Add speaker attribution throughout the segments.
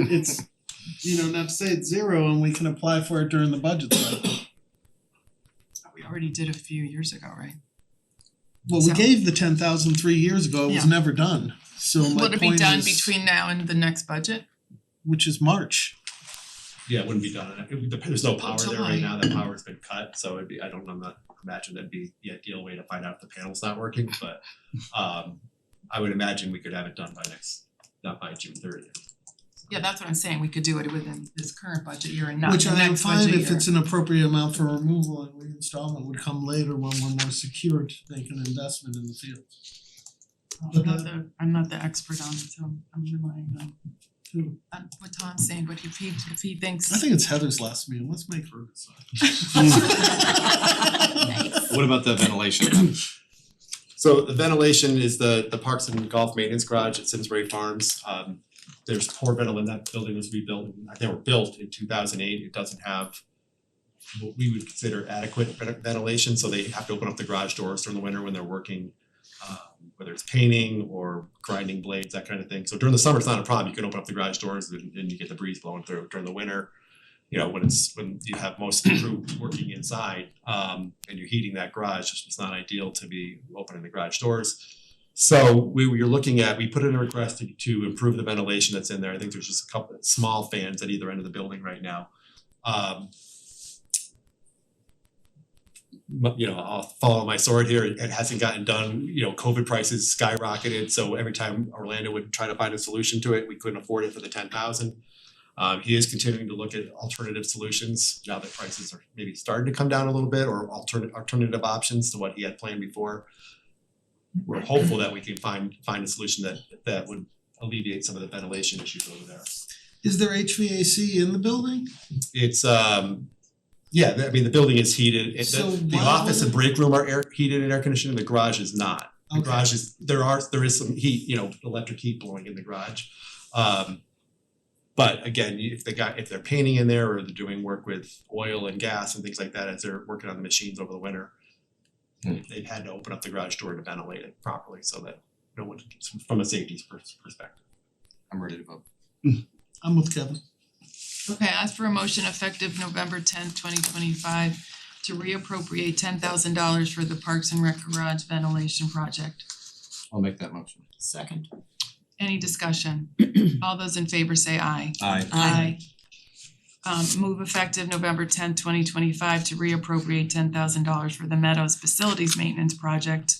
Speaker 1: it's, you know, not to say it's zero and we can apply for it during the budget cycle.
Speaker 2: We already did a few years ago, right?
Speaker 1: Well, we
Speaker 3: So-
Speaker 1: gave the ten thousand three years ago, it was
Speaker 2: Yeah.
Speaker 1: never done, so my
Speaker 3: Would it be
Speaker 1: point
Speaker 3: done
Speaker 1: is,
Speaker 3: between now and the next budget?
Speaker 1: which is March.
Speaker 4: Yeah, it wouldn't be done, it would dep- there's no power there
Speaker 3: July.
Speaker 4: right now, that power's been cut, so it'd be, I don't, I'm not, imagine that'd be the ideal way to find out if the panel's not working, but um I would imagine we could have it done by next, not by June thirtieth.
Speaker 3: Yeah, that's what I'm saying, we could do it within this current budget year and not
Speaker 1: Which
Speaker 3: the
Speaker 1: I am
Speaker 3: next
Speaker 1: fine
Speaker 3: budget year.
Speaker 1: if it's an appropriate amount for removal and reinstallment would come later when we're more secure to make an investment in the field.
Speaker 3: I'm not the, I'm not the expert on it, so I'm I'm relying on
Speaker 1: Who?
Speaker 3: on what Tom's saying, but if he if he
Speaker 1: I
Speaker 3: thinks
Speaker 1: think it's Heather's last meeting, let's make her decide.
Speaker 5: What about the ventilation?
Speaker 4: So the ventilation is the the Parks and Golf Maintenance Garage at Simsbury Farms. Um there's poor ventilation, that building was rebuilt, they were built in two thousand eight, it doesn't have what we would consider adequate ven- ventilation, so they have to open up the garage doors during the winter when they're working um whether it's painting or grinding blades, that kind of thing. So during the summer, it's not a problem, you can open up the garage doors and and you get the breeze blowing through during the winter. You know, when it's when you have most of the crew working inside, um and you're heating that garage, it's just not ideal to be opening the garage doors. So we were looking at, we put in a request to to improve the ventilation that's in there. I think there's just a couple of small fans at either end of the building right now. Um mu- you know, I'll follow my sword here. It hasn't gotten done. You know, COVID prices skyrocketed, so every time Orlando would try to find a solution to it, we couldn't afford it for the ten thousand. Um, he is continuing to look at alternative solutions now that prices are maybe starting to come down a little bit, or alternative alternative options to what he had planned before. We're hopeful that we can find find a solution that that would alleviate some of the ventilation issues over there.
Speaker 1: Is there HVAC in the building?
Speaker 4: It's um, yeah, I mean, the building is heated, it,
Speaker 1: So
Speaker 4: the, the
Speaker 1: why
Speaker 4: office
Speaker 1: would-
Speaker 4: and break room are air, heated and air conditioned, the garage is not. The
Speaker 1: Okay.
Speaker 4: garage is, there are, there is some heat, you know, electric heat blowing in the garage. Um, but again, you- if they got, if they're painting in there or they're doing work with oil and gas and things like that, as they're working on the machines over the winter,
Speaker 5: Hmm.
Speaker 4: they've had to open up the garage door to ventilate it properly so that no one, from a safety pers- perspective.
Speaker 5: I'm ready to vote.
Speaker 1: I'm with Kevin.
Speaker 3: Okay, ask for a motion effective November tenth, twenty twenty five to reappropriate ten thousand dollars for the Parks and Rec Garage ventilation project.
Speaker 5: I'll make that motion.
Speaker 2: Second.
Speaker 3: Any discussion? All those in favor say aye.
Speaker 5: Aye.
Speaker 2: Aye.
Speaker 3: Um move effective November tenth, twenty twenty five to reappropriate ten thousand dollars for the Meadows Facilities Maintenance Project.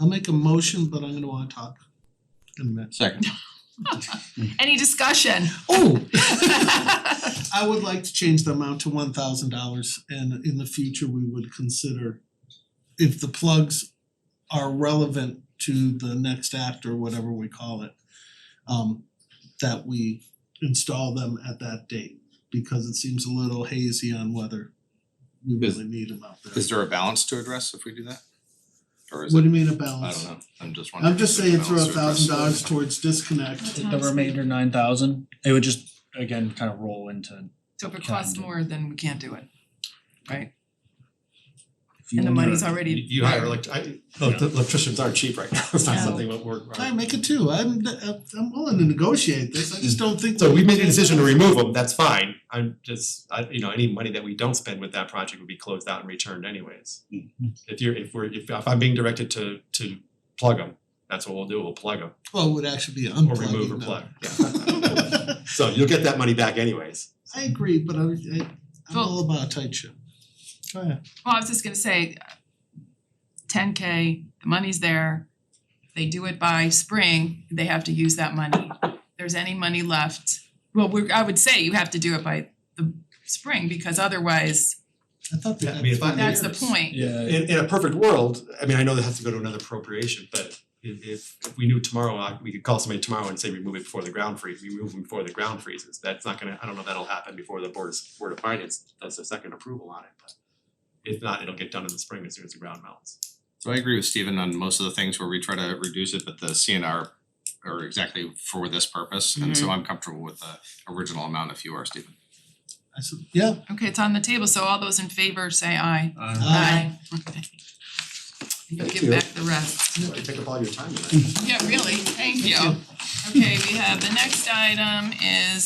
Speaker 1: I'll make a motion, but I'm gonna wanna talk in a minute.
Speaker 5: Second.
Speaker 3: Any discussion?
Speaker 1: Oh,
Speaker 3: Okay,
Speaker 1: I would like to change the amount to one thousand dollars and in the future, we would consider if the plugs are relevant to the next act or whatever we call it, um, that we install them at that date, because it seems a little hazy on whether we
Speaker 5: Is-
Speaker 1: really need them out there.
Speaker 5: Is there a balance to address if we do that? Or is
Speaker 1: What
Speaker 5: it,
Speaker 1: do you mean a
Speaker 5: I
Speaker 1: balance?
Speaker 5: don't know, I'm just wondering.
Speaker 1: I'm just
Speaker 5: if there's
Speaker 1: saying throw a
Speaker 5: balance to address.
Speaker 1: thousand dollars towards disconnect.
Speaker 6: the remainder nine thousand, it would just again kind of roll into.
Speaker 3: So if it costs more, then we can't do it.
Speaker 6: if you
Speaker 3: And the
Speaker 6: only-
Speaker 3: money's already.
Speaker 4: You you hire elect, I, elect- electricians aren't cheap right now, it's not
Speaker 3: No.
Speaker 4: something that we're.
Speaker 1: I make it two, I'm I'm willing to negotiate this, I
Speaker 5: Mm.
Speaker 1: just don't think.
Speaker 4: So we made a decision to remove them, that's fine, I'm just, I, you know, any money that we don't spend with that project would be closed out and returned anyways. If you're, if we're, if if I'm being directed to to plug them, that's what we'll do, we'll plug them,
Speaker 1: Well, it would actually be
Speaker 4: or
Speaker 1: unplugging
Speaker 4: remove or
Speaker 1: them.
Speaker 4: plug, yeah. So you'll get that money back anyways.
Speaker 1: I agree, but I I I'm
Speaker 3: Well-
Speaker 1: all about a tight ship. Go ahead.
Speaker 3: Well, I was just gonna say, ten K, the money's there. If They do it by spring, they have to use that money. If There's any money left, well, we're, I would say you have to do it by the spring because otherwise,
Speaker 1: I thought they
Speaker 4: Yeah, I
Speaker 1: had
Speaker 4: mean, if I-
Speaker 1: five
Speaker 3: that's the
Speaker 1: years.
Speaker 3: point.
Speaker 6: Yeah,
Speaker 4: In in a perfect world, I mean, I know that has to go to another appropriation, but if if if we knew tomorrow, I- we could call somebody tomorrow and say remove it before the ground freeze, we remove them before the ground freezes, that's not gonna, I don't know if that'll happen before the board's board of finance does a second approval on it, but if not, it'll get done in the spring as soon as the ground melts.
Speaker 5: So I agree with Steven on most of the things where we try to reduce it, but the CNR are exactly for this purpose, and so I'm comfortable with the original amount if you are, Steven.
Speaker 1: I said, yeah,
Speaker 3: Okay, it's on the table, so all those in favor say aye.
Speaker 6: uh,
Speaker 1: Aye.
Speaker 3: Okay. You'll
Speaker 4: Thank
Speaker 3: give
Speaker 4: you.
Speaker 3: back the rest.
Speaker 4: Take up all your time tonight.
Speaker 3: Yeah, really, thank you.
Speaker 1: you.
Speaker 3: Okay, we have, the next item is